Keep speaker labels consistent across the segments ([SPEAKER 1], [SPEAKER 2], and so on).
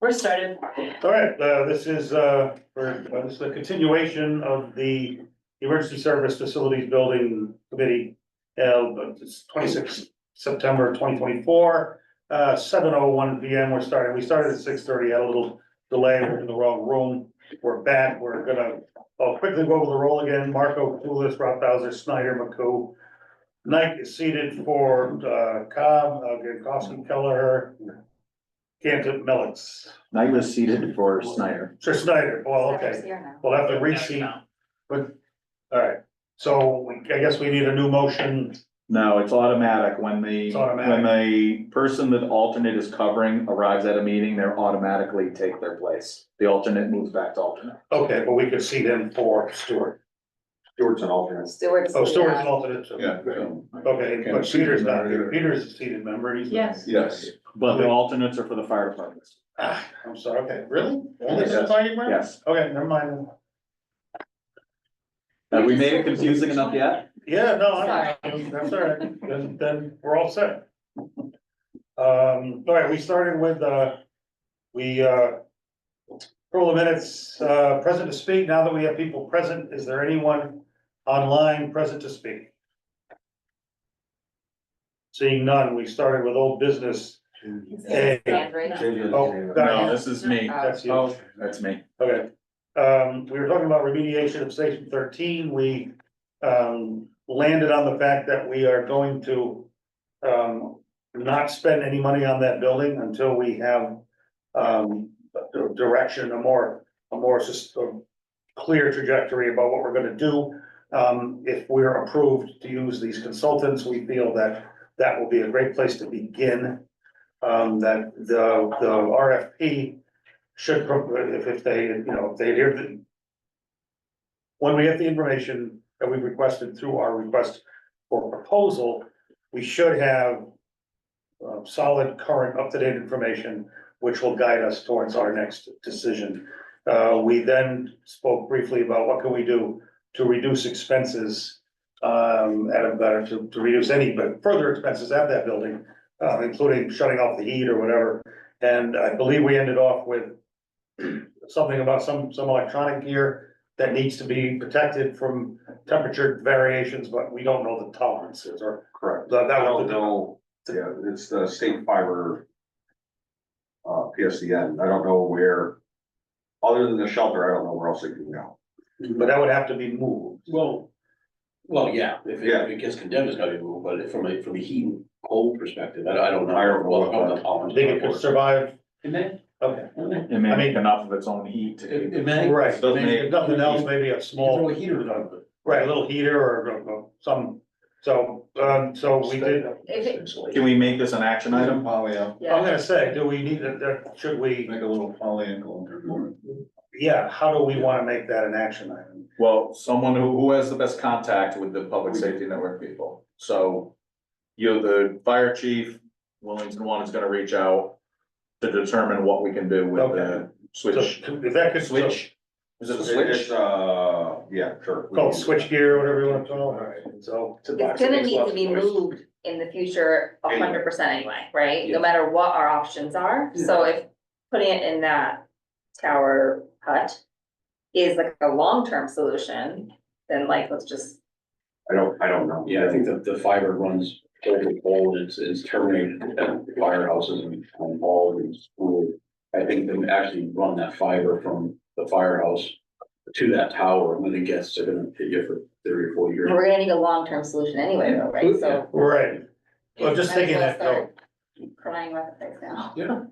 [SPEAKER 1] We're started.
[SPEAKER 2] All right, uh, this is, uh, for, uh, this is the continuation of the Emergency Service Facilities Building Committee. Uh, but it's twenty-six September twenty twenty-four, uh, seven oh one P M, we're starting, we started at six thirty, had a little delay, we're in the wrong room. We're back, we're gonna, I'll quickly go over the roll again, Marco Pulis, Rob Bowser, Snyder, McCoo. Knight is seated for, uh, Cobb, uh, Gankowski, Kelleher, Cantor, Melix.
[SPEAKER 3] Knight was seated for Snyder.
[SPEAKER 2] Sir Snyder, well, Oh, okay, we'll have to reseat, but, all right, so we- I guess we need a new motion.
[SPEAKER 3] No, it's automatic. When the,
[SPEAKER 2] It's
[SPEAKER 3] when
[SPEAKER 2] automatic.
[SPEAKER 3] the person that alternate is covering arrives at a meeting, they automatically take their place. The alternate moves back to alternate.
[SPEAKER 2] Okay, but we could see them for Stewart.
[SPEAKER 4] Stewart's an alternate.
[SPEAKER 1] Stewart's. uh,
[SPEAKER 2] Oh, Stewart's alternate, so-
[SPEAKER 4] Yeah.
[SPEAKER 2] Okay, but Peter's not here. Peter's a seated member, he's.
[SPEAKER 1] Yes.
[SPEAKER 4] Yes.
[SPEAKER 3] But the alternates are for the fire departments.
[SPEAKER 2] Ah, I'm sorry, okay, really? Only since I remember?
[SPEAKER 3] Yes.
[SPEAKER 2] Okay, never mind.
[SPEAKER 3] Have we made it confusing enough yet?
[SPEAKER 2] Yeah, no, I- that's all right, then, then we're all set. Um, all right, we started with, uh, we, uh, for the minutes, uh, present to speak, now that we have people present, is there anyone online present to speak? Seeing none, we started with old business. Hey. Oh,
[SPEAKER 3] No,
[SPEAKER 2] God,
[SPEAKER 3] this is me.
[SPEAKER 2] that's you.
[SPEAKER 3] Oh, that's me.
[SPEAKER 2] Okay, um, we were talking about remediation of section thirteen, we, um, landed on the fact that we are going to. Um, not spend any money on that building until we have, um, a direction, a more, a more sus- a Clear trajectory about what we're gonna do, um, if we're approved to use these consultants, we feel that that will be a great place to begin. Um, that the, the RFP should, pro- if, if they, you know, if they adhere to. When we get the information that we requested through our request for proposal, we should have. Uh, solid, current, up-to-date information, which will guide us towards our next decision. Uh, we then spoke briefly about what can we do to reduce expenses. Um, at a better, to, to reduce any, but further expenses at that building, uh, including shutting off the heat or whatever. And I believe we ended off with something about some, some electronic gear that needs to be protected from temperature variations, but we don't know the tolerances or
[SPEAKER 4] Correct.
[SPEAKER 2] that,
[SPEAKER 4] I
[SPEAKER 2] that
[SPEAKER 4] don't
[SPEAKER 2] was the.
[SPEAKER 4] know, yeah, it's the state fiber. Uh, PSDN, I don't know where, other than the shelter, I don't know where else it can go.
[SPEAKER 2] But that would have to be moved.
[SPEAKER 5] Well, well, yeah, if it,
[SPEAKER 4] Yeah.
[SPEAKER 5] if it gets condemned, it's gotta be moved, but from a, from a heat and cold perspective, I don't, I don't know.
[SPEAKER 4] I don't know
[SPEAKER 5] Well,
[SPEAKER 4] what
[SPEAKER 5] I'm not tolerant
[SPEAKER 2] They
[SPEAKER 5] to
[SPEAKER 2] could
[SPEAKER 5] that.
[SPEAKER 2] survive,
[SPEAKER 5] Can they?
[SPEAKER 2] okay.
[SPEAKER 5] It,
[SPEAKER 3] It may
[SPEAKER 2] I
[SPEAKER 3] make
[SPEAKER 2] mean-
[SPEAKER 3] enough of its own heat to keep
[SPEAKER 5] it
[SPEAKER 3] it.
[SPEAKER 5] may.
[SPEAKER 2] Right,
[SPEAKER 3] Doesn't
[SPEAKER 2] maybe
[SPEAKER 3] make-
[SPEAKER 2] if nothing else, maybe a small,
[SPEAKER 5] Throw a heater on it.
[SPEAKER 2] right, a little heater or uh, uh, some, so, um, so we did.
[SPEAKER 3] Can we make this an action item?
[SPEAKER 2] I'm gonna say, do we need, a- a- should we,
[SPEAKER 4] Make a little polyangle.
[SPEAKER 2] yeah, how do we wanna make that an action item?
[SPEAKER 3] Well, someone who, who has the best contact with the public safety network people, so. You're the fire chief, Wellington one is gonna reach out to determine what we can do with the
[SPEAKER 2] So
[SPEAKER 3] switch.
[SPEAKER 2] if that could.
[SPEAKER 3] Switch, is it a
[SPEAKER 4] It's,
[SPEAKER 3] switch?
[SPEAKER 4] uh, yeah, sure.
[SPEAKER 2] Called switch gear, whatever you wanna call it, alright, so.
[SPEAKER 1] It's gonna need to be moved in the future a hundred percent anyway, right? No
[SPEAKER 5] Yeah.
[SPEAKER 1] matter what our options are, so if putting it in that tower hut is like a long-term solution, then like, let's just,
[SPEAKER 4] I don't, I don't know.
[SPEAKER 5] Yeah, I think that the fiber runs over cold, it's, it's terminated at firehouses and on all and school. I think they actually run that fiber from the firehouse to that tower, and then it gets, they're gonna hit you for three or four years.
[SPEAKER 1] we're gonna need a long-term solution anyway, though, right? So.
[SPEAKER 2] Right, Well, just
[SPEAKER 1] might as
[SPEAKER 2] thinking
[SPEAKER 1] well
[SPEAKER 2] that, though.
[SPEAKER 1] start Crying about the things now.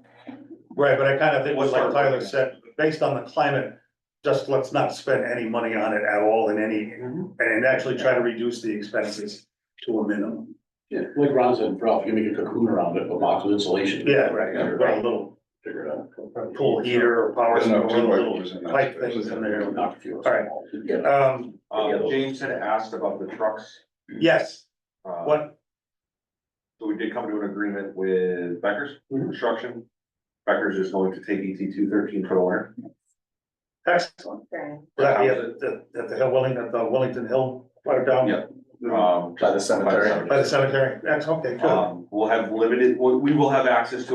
[SPEAKER 2] right, but I kinda think what like Tyler said, based on the climate, just let's not spend any money on it at all in any,
[SPEAKER 4] Mm-hmm.
[SPEAKER 2] and actually try to reduce the expenses to a minimum.
[SPEAKER 5] Yeah, like Ron said, Ralph, you make a cocoon around it, a box of insulation.
[SPEAKER 2] Yeah, right, yeah, right, a little
[SPEAKER 5] Figure it out.
[SPEAKER 2] pool heater or power,
[SPEAKER 4] There's no
[SPEAKER 2] or
[SPEAKER 4] two
[SPEAKER 2] little
[SPEAKER 4] ways in that
[SPEAKER 2] pipe
[SPEAKER 4] space.
[SPEAKER 2] things in there.
[SPEAKER 5] Knock a few.
[SPEAKER 2] All right. Um,
[SPEAKER 4] Um, James had asked about the trucks.
[SPEAKER 2] yes,
[SPEAKER 4] uh,
[SPEAKER 2] what,
[SPEAKER 4] So we did come to an agreement with Becker's
[SPEAKER 2] Mm-hmm.
[SPEAKER 5] Mhm.
[SPEAKER 4] Construction. Becker's is going to take ET two thirteen for the winter.
[SPEAKER 2] excellent,
[SPEAKER 1] Very-
[SPEAKER 2] Would that be at the, at the Hill Wellington, at the Wellington Hill, or
[SPEAKER 4] Yeah.
[SPEAKER 2] down
[SPEAKER 4] Um,
[SPEAKER 3] By the cemetery.
[SPEAKER 2] by the cemetery, that's okay, good.
[SPEAKER 4] Um, we'll have limited, we we will have access to it.